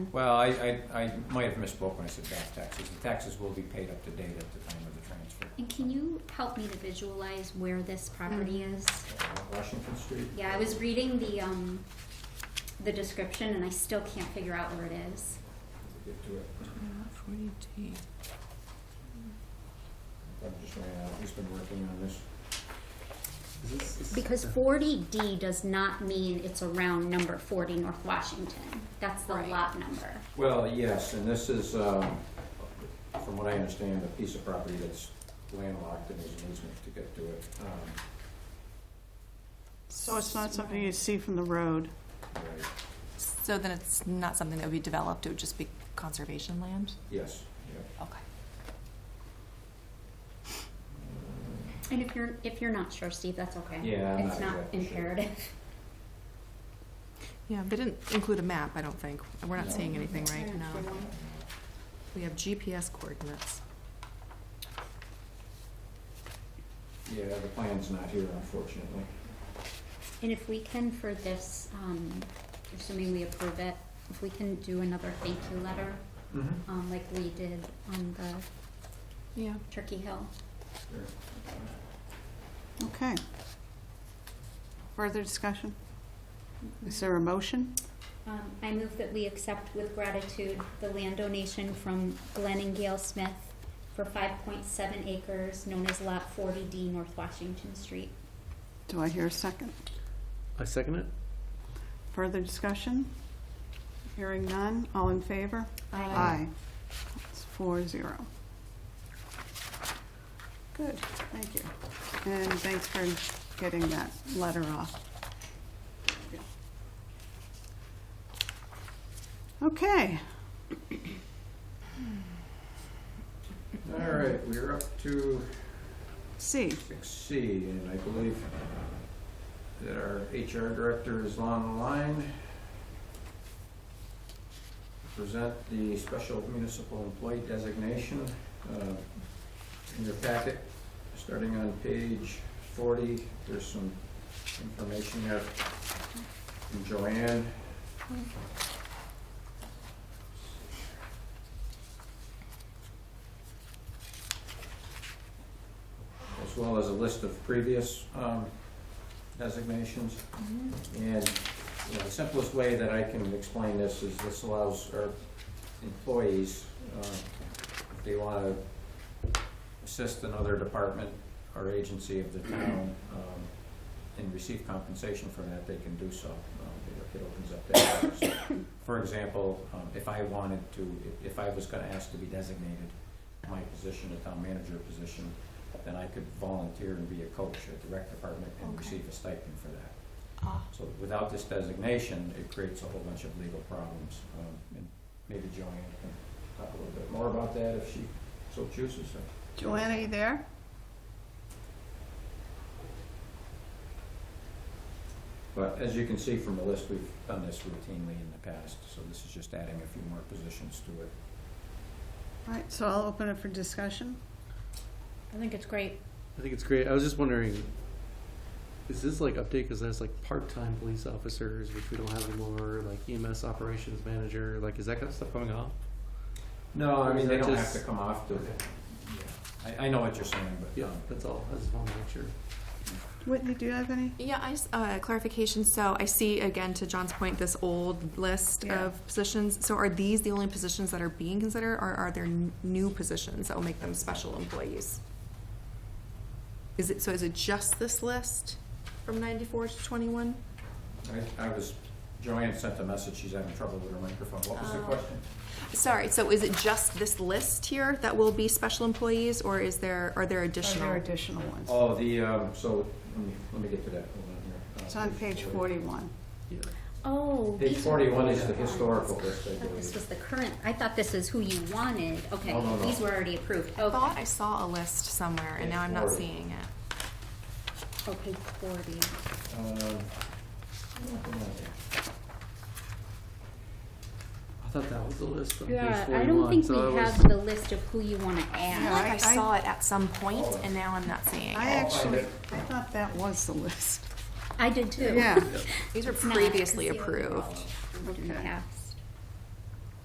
Well, I, I, I might have misspoke when I said back taxes. The taxes will be paid up to date at the time of the transfer. And can you help me to visualize where this property is? Uh, Washington Street? Yeah, I was reading the, um, the description and I still can't figure out where it is. Get to it. Forty-two. I'm just ran out. He's been working on this. Because forty D does not mean it's a round number forty North Washington. That's the Right. lot number. Well, yes, and this is, um, from what I understand, a piece of property that's landlocked and there's an easement to get to it. Um, So it's not something you see from the road. right, So then it's not something that would be developed, it would just be conservation land? Yes, yep. Okay. And if you're, if you're not sure, Steve, that's okay. Yeah, I'm It's not not exactly sure. imperative. Yeah, they didn't include a map, I don't think. We're not No. seeing anything, right? Yeah, No. sure won't. We have GPS coordinates. Yeah, the plan's not here unfortunately. And if we can for this, um, assuming we approve it, if we can do another thank you letter, Mm-hmm. um, like we did on the Yeah. Turkey Hill. Sure. Okay. Further discussion? Is there a motion? Um, I move that we accept with gratitude the land donation from Glenn and Gail Smith for five point seven acres known as Lot forty D, North Washington Street. Do I hear a second? I second it. Further discussion? Hearing none, all in favor? Aye. It's four zero. Good, thank you. And thanks for getting that letter off. Okay, All right, we're up to C. six C, and I believe that our HR director is on the line. Present the special municipal employee designation uh, in your packet, starting on page forty. There's some information there from Joanne. as well as a list of previous um, designations. And, you know, the simplest way that I can explain this is this allows our employees, uh, if they want to assist another department or agency of the town um, and receive compensation for that, they can do so. Um, it- It opens up that. door. So, For example, um, if I wanted to, if I was going to ask to be designated, my position, the town manager position, then I could volunteer and be a coach at the rec department and Okay. receive a stipend for that. Ah. So without this designation, it creates a whole bunch of legal problems. Um, and maybe Joanne can talk a little bit more about that if she so chooses. Joanna, you there? But as you can see from the list, we've done this routinely in the past, so this is just adding a few more positions to it. All right, so I'll open it for discussion. I think it's great. I think it's great. I was just wondering, is this like update because there's like part-time police officers, which we don't have anymore, like EMS operations manager, like is that kind of stuff coming off? No, I mean, they Is that don't have just- to come off the, Okay. I, I know what you're saying, but, Yeah, um, that's all. I just wanted to make sure. Whitney, do you have any? Yeah, I, s- uh, clarification, so I see again to John's point, this old list Yeah. of positions. So are these the only positions that are being considered or are there n- new positions that will make them special employees? Is it, so is it just this list from ninety-four to twenty-one? I, I was, Joanne sent a message, she's having trouble with her microphone. What was the Oh. question? Sorry, so is it just this list here that will be special employees or is there, are there Are additional? there additional ones? Oh, the, um, so, let me, let me get to that, hold on here. Uh, It's on page forty-one. Yeah. Oh. Page these are the forty-one is the ones. historical list, I I thought this believe. was the current, I thought this is who you wanted. Okay, No, no, no. these were already approved. I Okay, thought I saw a list somewhere and Yeah, now I'm not forward. seeing it. oh, page forty. Um, hold on here. I thought that was the list on Yeah, page I 41. don't think so we that have was, the list of who you wanna I feel add. Yeah, like I, I- I- saw it at some point and now I'm not seeing it. I I'll find actually, it. I thought that was the list. I did too. Yeah, These were It's not, previously because the approved. overall looked in the Okay. past.